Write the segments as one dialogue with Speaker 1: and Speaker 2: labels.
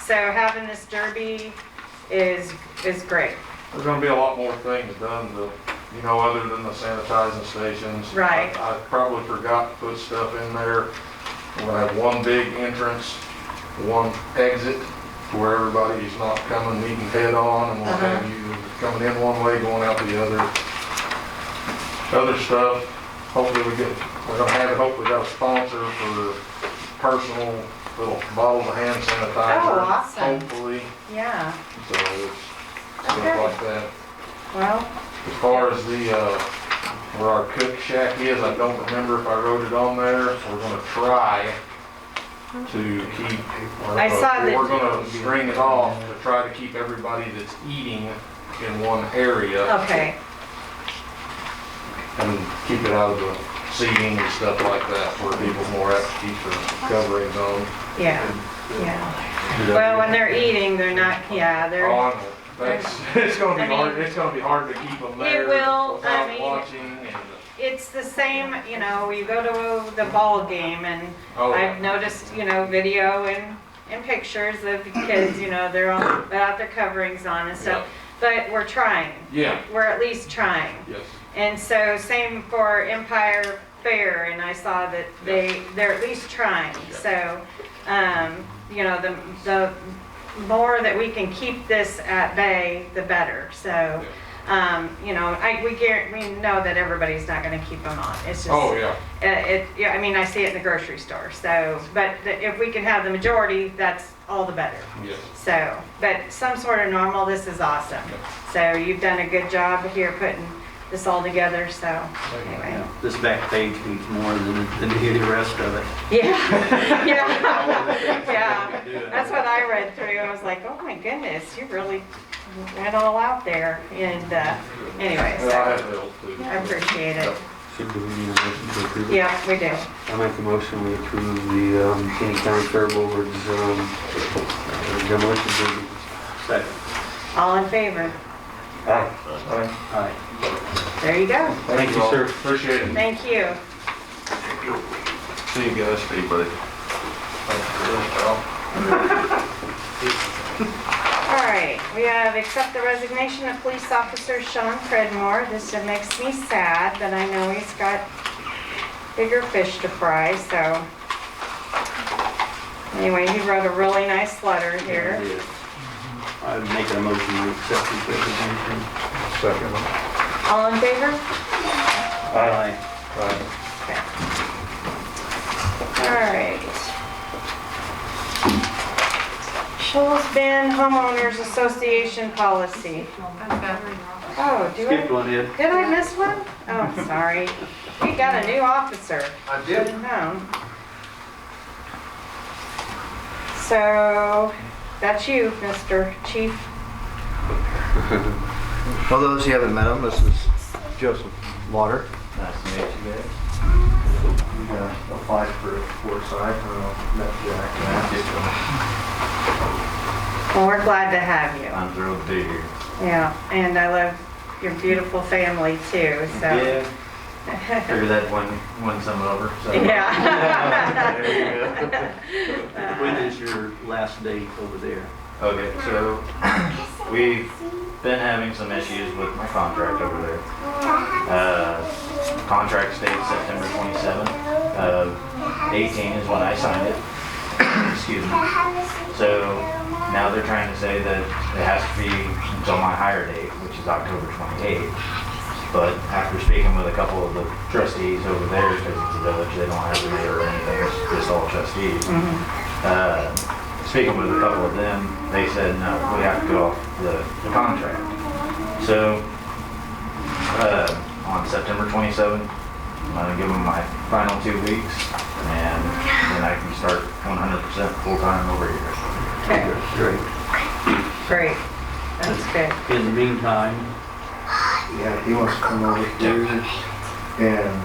Speaker 1: So having this derby is, is great.
Speaker 2: There's gonna be a lot more things done, to, you know, other than the sanitizing stations.
Speaker 1: Right.
Speaker 2: I I probably forgot to put stuff in there. We're gonna have one big entrance, one exit, where everybody's not coming, meeting head on, and we'll
Speaker 1: Uh-huh.
Speaker 2: have you coming in one way, going out the other. Other stuff, hopefully we get, we're gonna have, hopefully got a sponsor for personal little bottles of hand sanitizer.
Speaker 1: Oh, awesome.
Speaker 2: Hopefully,
Speaker 1: Yeah,
Speaker 2: so it's
Speaker 1: Okay.
Speaker 2: stuff like that.
Speaker 1: well,
Speaker 2: As far as the, uh, where our cook shack is, I don't remember if I wrote it on there. We're gonna try to keep.
Speaker 1: I saw that-
Speaker 2: We're gonna string it off to try to keep everybody that's eating in one area
Speaker 1: okay,
Speaker 2: and keep it out of the seating and stuff like that where people more apt to keep their coverings on.
Speaker 1: yeah, yeah. Well, when they're eating, they're not, yeah, they're,
Speaker 2: On, Oh, that's, it's gonna be hard, it's gonna be hard to keep them there
Speaker 1: It will, I
Speaker 2: without
Speaker 1: mean-
Speaker 2: watching and.
Speaker 1: it's the same, you know, you go to the ball game and
Speaker 2: oh,
Speaker 1: I've noticed, you know, video and, and pictures of the kids, you know, they're all, without their coverings on and stuff. But we're trying,
Speaker 2: Yeah,
Speaker 1: we're at least trying.
Speaker 2: yes.
Speaker 1: And so same for Empire Fair, and I saw that they, they're at least trying. So, um, you know, the, the more that we can keep this at bay, the better. So, um, you know, I, we guarantee, we know that everybody's not gonna keep them on. It's just.
Speaker 2: Oh, yeah.
Speaker 1: Uh, It, yeah, I mean, I see it in the grocery store, so, but the- if we can have the majority, that's all the better.
Speaker 2: Yes.
Speaker 1: So, but some sort of normal, this is awesome. So you've done a good job here putting this all together, so anyway.
Speaker 3: This back page means more than, than the rest of it.
Speaker 1: Yeah, yeah, yeah.
Speaker 3: Yeah.
Speaker 1: That's what I read through. I was like, oh my goodness, you really went all out there. And uh, anyway,
Speaker 2: Well, I
Speaker 1: so
Speaker 2: have those too.
Speaker 1: I appreciate it.
Speaker 4: Should we need a motion to approve it?
Speaker 1: Yeah, we do.
Speaker 4: I make a motion we approve the um, King County Fair Board's um, uh, demolition derby.
Speaker 3: Second.
Speaker 1: All in favor?
Speaker 2: Thank
Speaker 3: Aye.
Speaker 1: There you go.
Speaker 4: Thank you,
Speaker 2: all.
Speaker 4: sir.
Speaker 2: Appreciate it.
Speaker 1: Thank you.
Speaker 2: See you guys. See you, buddy.
Speaker 1: All right, we have accept the resignation of police officer Sean Credmore. This just makes me sad, but I know he's got bigger fish to fry, so. Anyway, he wrote a really nice letter here.
Speaker 3: Yeah. I'm making a motion to accept this resignation.
Speaker 2: Second.
Speaker 1: All in favor?
Speaker 3: Aye.
Speaker 2: Right.
Speaker 1: All right. Shoals Bend Homeowners Association Policy. Oh, do
Speaker 3: Skip
Speaker 1: I,
Speaker 3: one in.
Speaker 1: did I miss one? Oh, sorry. We got a new officer.
Speaker 2: I did.
Speaker 1: No. So, that's you, Mr. Chief.
Speaker 5: For those who haven't met him, this is Joseph Lauder. Nice to meet you guys. Yeah, applied for Forsyth, uh, met Jack.
Speaker 1: Well, we're glad to have you.
Speaker 5: I'm thrilled to be here.
Speaker 1: Yeah, and I love your beautiful family too, so.
Speaker 5: Yeah. Figured that one, won some over, so.
Speaker 1: Yeah.
Speaker 5: There you go.
Speaker 1: uh,
Speaker 3: When is your last date over there?
Speaker 5: Okay, so we've been having some issues with my contract over there. Uh, Contract states September 27th of 18 is when I signed it. Excuse me. So now they're trying to say that it has to be until my hire date, which is October 28th. But after speaking with a couple of the trustees over there, because it's a village, they don't have a mayor or anything, it's just all trustees. Uh, speaking with a couple of them, they said, no, we have to go off the, the contract. So, uh, on September 27th, I'm gonna give them my final two weeks, and then I can start 100% full-time over here.
Speaker 1: Okay,
Speaker 3: Great.
Speaker 1: Great, that's good.
Speaker 3: In the meantime,
Speaker 6: Yeah, he wants to come over here and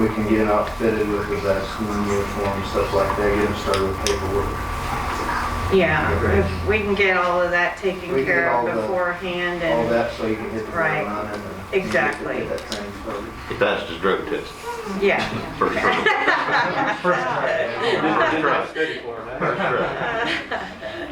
Speaker 6: we can get outfitted with his uh, school uniform, stuff like that, get him started with paperwork.
Speaker 1: Yeah, if we can get all of that
Speaker 6: We
Speaker 1: taken
Speaker 6: can get
Speaker 1: care
Speaker 6: all
Speaker 1: of
Speaker 6: the-
Speaker 1: beforehand
Speaker 6: All
Speaker 1: and,
Speaker 6: that so you can hit the
Speaker 1: Right.
Speaker 6: ground running and
Speaker 1: Exactly.
Speaker 6: Get that training started.
Speaker 7: He passed his drug test.
Speaker 1: yeah.
Speaker 7: First drug.
Speaker 2: First try.
Speaker 3: didn't get study for it, huh?
Speaker 7: First drug.
Speaker 1: Uh,